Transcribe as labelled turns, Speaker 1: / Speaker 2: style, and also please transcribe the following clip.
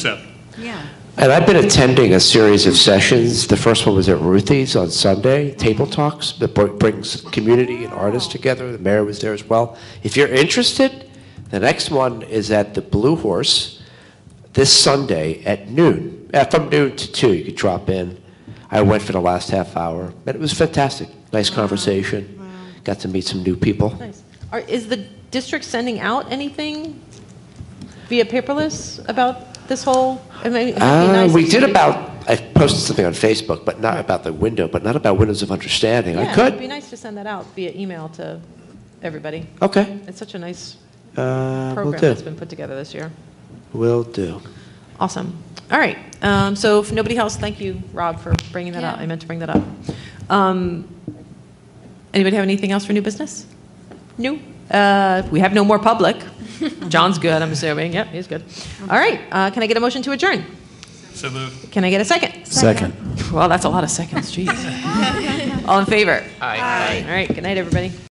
Speaker 1: Seven.
Speaker 2: Yeah.
Speaker 3: And I've been attending a series of sessions. The first one was at Ruthie's on Sunday, Table Talks, that br- brings community and artists together. The mayor was there as well. If you're interested, the next one is at the Blue Horse this Sunday at noon, uh, from noon to 2. You could drop in. I went for the last half hour, and it was fantastic. Nice conversation. Got to meet some new people.
Speaker 4: Nice. Are, is the district sending out anything via paperless about this whole? I mean, it'd be
Speaker 3: Uh,
Speaker 4: nice
Speaker 3: we
Speaker 4: if
Speaker 3: did
Speaker 4: you could-
Speaker 3: about, I posted something on Facebook, but not about the window, but not about windows of understanding. I
Speaker 4: Yeah,
Speaker 3: could.
Speaker 4: It'd be nice to send that out via email to everybody.
Speaker 3: Okay.
Speaker 4: It's such a nice
Speaker 3: Uh, will
Speaker 4: program
Speaker 3: do.
Speaker 4: that's been put together this year.
Speaker 3: Will do.
Speaker 4: Awesome. All right. Um, so if nobody else, thank you, Rob, for bringing that up.
Speaker 2: Yeah.
Speaker 4: I meant to bring that up. Um, anybody have anything else for new business? No. Uh, we have no more public. John's good, I'm assuming. Yep, he's good. All right. Uh, can I get a motion to adjourn?
Speaker 1: So moved.
Speaker 4: Can I get a second?
Speaker 5: Second.
Speaker 4: Well, that's a lot of seconds. Jeez. All in favor? Aye. All right. Good night, everybody.